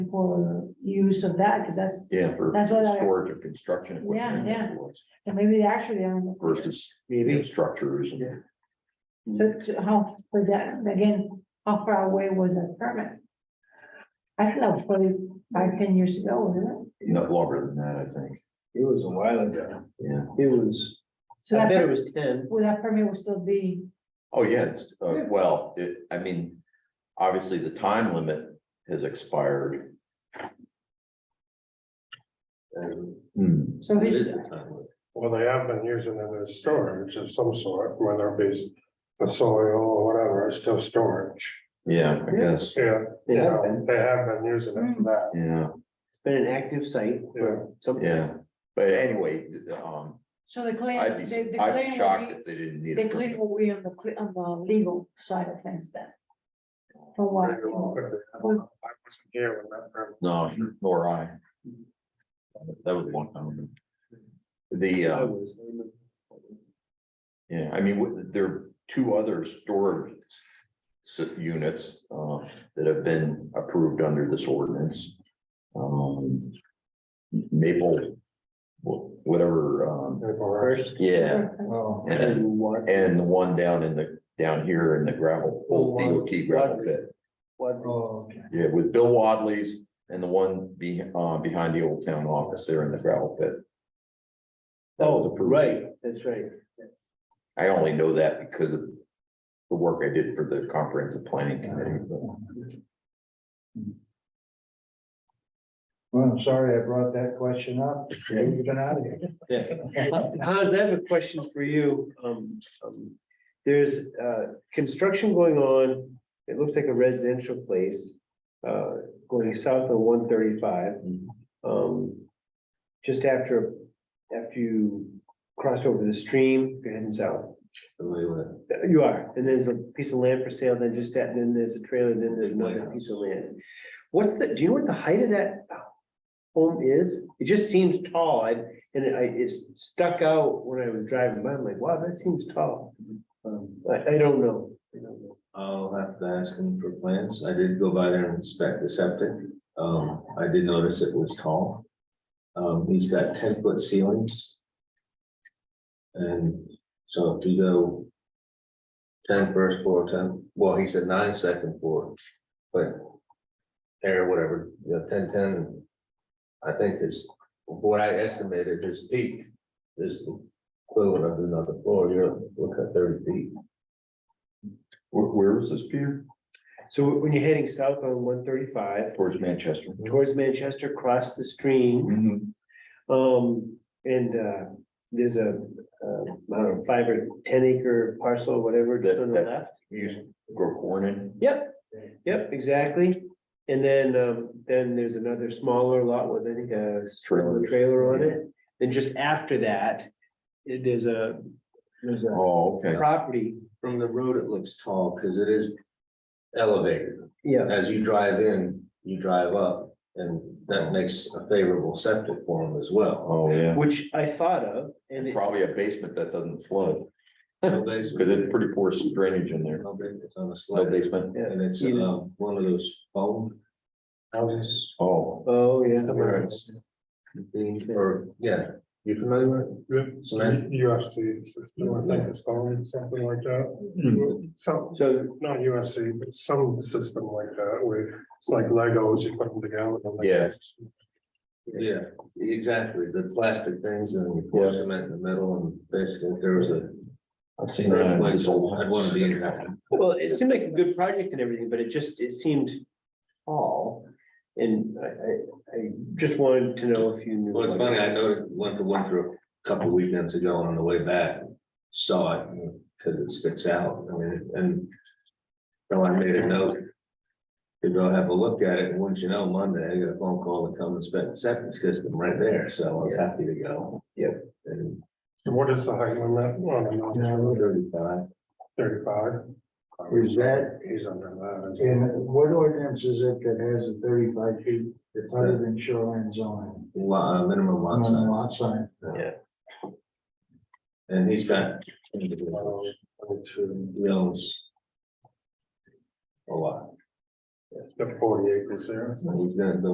for use of that, because that's, Yeah, for That's what I- storage of construction equipment. Yeah, and maybe they actually, um. Versus you know, Maybe, structures Yeah. and So to how, for that, again, how far away was that permit? I don't know, probably five, ten years ago, wasn't it? not longer than that, I think. it was a while ago. Yeah. It was, So I that, bet it per- was ten. would that permit will still be, Oh, yeah, it's, uh, Yeah. well, it, I mean, obviously the time limit has expired. Hmm, so this is, Well, they have been using it as storage of some sort, whether it be the soil or whatever, it's still storage. yeah, I guess, Yeah, you Yeah, know, they have been using it for that. yeah, it's been an active site for some. yeah, but anyway, um, so the claim, I'd the, be, the I'd claim be will shocked be, if they didn't need the a claim permit. will be on the, cle- on the legal side of things then. For what? Pretty long, but I don't know. I wasn't here when that happened. No, nor I. That was one time. The, I uh, was. yeah, I mean, w- there are two other storage s- units, uh, that have been approved under this ordinance. Um, Maple, wh- whatever, um, They were- First. yeah, Wow. And- And what? and the one down in the, down here in the gravel, old DOT gravel pit. What? Yeah, with Bill Wadley's and the one be, uh, behind the old town office there in the gravel pit. That was Oh, approved. right, that's right. I only know that because of the work I did for the comprehensive planning committee. Well, I'm sorry I brought that question up. You've been out of here. Yeah. Hans, I have a question for you. Um, um, there's, uh, construction going on. It looks like a residential place, uh, going south of one thirty-five. Um, just after, after you cross over the stream, you're heading south. You are, and there's a piece of land for sale, then just that, and then there's a trailer, then there's another piece of land. What's the, do you know what the height of that home is? It just seems tall. I, and it- I, it stuck out when I was driving by, I'm like, wow, that seems tall. Um, I, I don't know. I don't know. I'll have to ask him for plans. I did go by there and inspect the septic. Um, I did notice it was tall. Um, he's got ten foot ceilings. And so if you go. 10 first floor, ten, well, he said nine second floor, but. There, whatever, you know, 10, 10, I think is what I estimated his peak is equivalent of another floor. You're looking at thirty feet. Where, where is this, Peter? So when you're heading south on one thirty-five Towards Manchester. towards Manchester, cross the stream, Mhm. um, and, uh, there's a, uh, I don't know, five or ten acre parcel, whatever, just That- on the that- left. You used to grow corn in. Yep, yep, exactly. And then, um, then there's another smaller lot with, I think, a Trailer. trailer on it. Then just after that, it- there's a, there's a Oh, okay. property, From the road, it looks tall because it is elevated. yeah, As you drive in, you drive up and that makes a favorable septic for them as well. Oh, yeah. which I thought of, and it's, Probably a basement that doesn't flood No because basement, it's pretty poor drainage in there. no basement, It's on a No slide basement. and it's Yeah. um, one of those foam houses. Oh, oh, Where yeah. it's being, or, yeah, you familiar with Yep, So then- UFC, I think it's called, something like that. Some, So, not UFC, but some system like that, where it's like Legos, you put them together. and like- Yeah. it? Yeah, exactly. The plastic things and you pour Yeah. cement in the middle and basically there was a. I've seen that. in this old I'd want to house. be in that. well, it seemed like a good project and everything, but it just, it seemed tall. And I, I, I just wanted to know if you knew. Well, it's funny, I noticed, went to Winthrop a couple of weekends ago on the way back, saw it, because it sticks out, I mean, and. So I made a note. To go have a look at it, and once you know, Monday, I got a phone call to come inspect the septic system right there, so I was happy to go. Yep. And So What is the height limit? Well, I don't know, thirty-five, Thirty-five. Is that- He's under that. isn't he? And what ordinance is it that has a thirty-five feet it's other a than shoreline zoning? lot, uh, minimum lot Minimum size, Lot size. and he's got. Um, Which owns. A lot, It's got forty acres there. and he's gonna build